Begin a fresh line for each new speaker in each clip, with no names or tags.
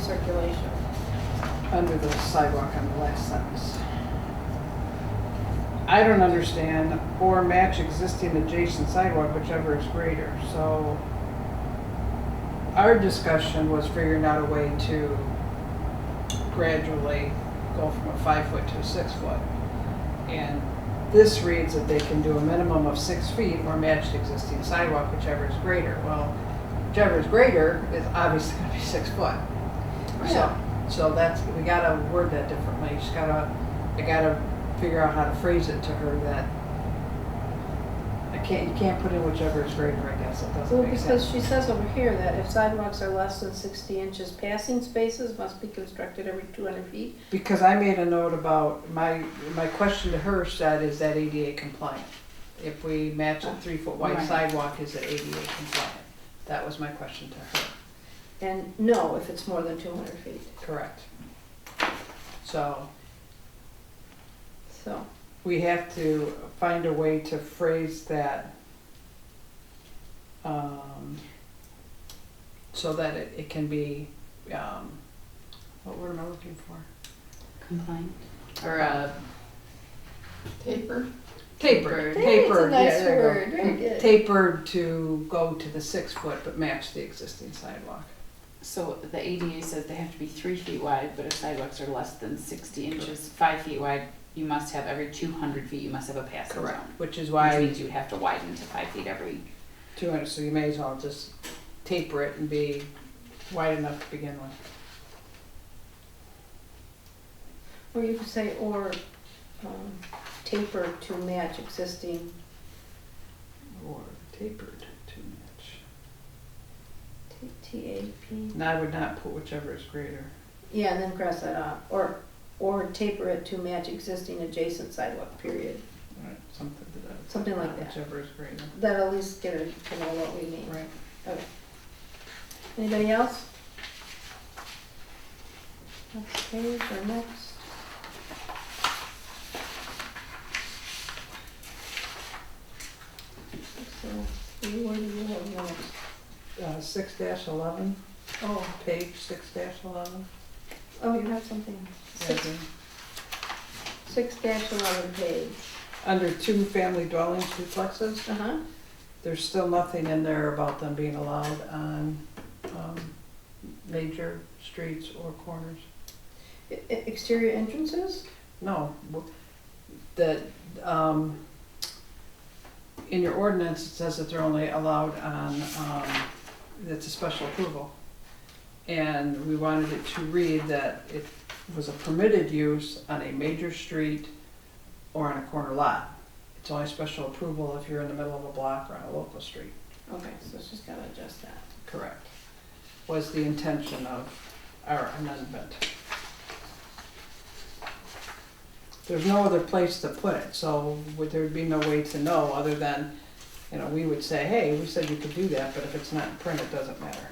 circulation.
uh, under the sidewalk on the last sentence. I don't understand, or match existing adjacent sidewalk, whichever is greater, so our discussion was figuring out a way to gradually go from a five foot to a six foot. And this reads that they can do a minimum of six feet or match existing sidewalk, whichever is greater. Well, whichever is greater is obviously gonna be six foot. So, so that's, we gotta word that differently, just gotta, I gotta figure out how to phrase it to her that I can't, you can't put in whichever is greater, I guess, it doesn't
Well,
make
because
sense.
she says over here that if sidewalks are less than sixty inches, passing spaces must be constructed every two hundred feet.
Because I made a note about, my, my question to her said, is that ADA compliant? If we match a three foot wide
Right.
sidewalk, is it ADA compliant? That was my question to her,
And no, if it's more than two hundred feet,
correct. So,
so.
we have to find a way to phrase that um, so that it, it can be, um, what word am I looking for?
Compliant.
Or, uh,
Paper?
tapered,
Tapered.
tapered, yeah,
That's a nice
there
word,
you
very
go. Mm,
good.
Tapered to go to the six foot but match the existing sidewalk.
So the ADA says they have to be three feet wide, but if sidewalks are less than sixty inches, five feet wide, you must have every two hundred feet, you must have a passing zone.
Which is
Which
why
means you would have to widen to five feet every,
two hundred, so you may as well just taper it and be wide enough to begin with.
Or you could say, or um, taper to match existing,
Or tapered to match.
T- T-A-P,
And I would not put whichever is greater.
yeah, and then cross that off, or, or taper it to match existing adjacent sidewalk, period.
Right, uh, something to that.
Something like that.
Whichever is greater.
That'll at least get it to know what we mean.
Right.
Okay. Anybody else? Next page or next? So, you, what do you have next?
Uh, six dash eleven,
Oh,
page six dash eleven.
oh, you have something. Six, six dash eleven page.
Under two family dwellings duplexes,
Uh-huh.
there's still nothing in there about them being allowed on, um, major streets or corners.
E- e- Exterior entrances?
No, w- that, um, in your ordinance, it says that they're only allowed on, um, that's a special approval. And we wanted it to read that it was a permitted use on a major street or on a corner lot. It's only special approval if you're in the middle of a block or on a local street.
Okay, so it's just gotta adjust that.
Correct. Was the intention of our amendment. There's no other place to put it, so would there be no way to know other than, you know, we would say, hey, we said you could do that, but if it's not in print, it doesn't matter.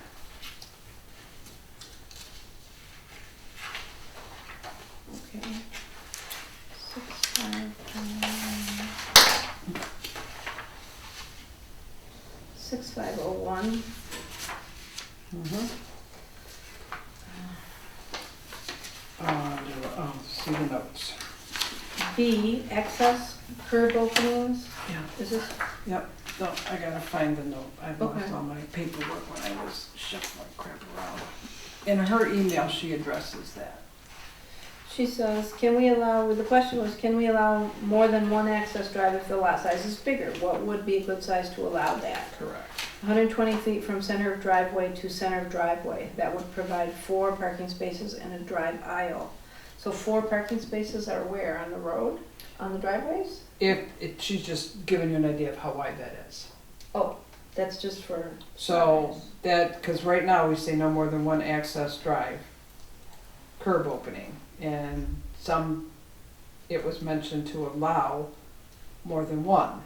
Okay. Six, five, oh um, Six, five, oh, one.
Uh, oh, see the notes.
B, excess curb openings,
Yeah.
is this,
Yep, no, I gotta find the note. I lost
Okay.
all my paperwork when I was shuffling crap around. In her email, she addresses that.
she says, can we allow, well, the question was, can we allow more than one access drive if the lot size is bigger? What would be a good size to allow that?
Correct.
hundred and twenty feet from center of driveway to center of driveway. That would provide four parking spaces and a drive aisle. So four parking spaces are where, on the road, on the driveways?
If, it she's just giving you an idea of how wide that is.
Oh, that's just for.
So that, because right now we say no more than one access drive, curb opening, and some, it was mentioned to allow more than one.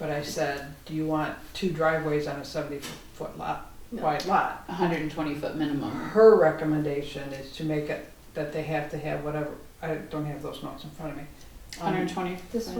But I said, do you want two driveways on a seventy-foot lot,
No.
wide lot?
hundred and twenty foot minimum.
Her recommendation is to make it that they have to have whatever, I don't have those notes in front of me. Um,
Hundred and twenty
This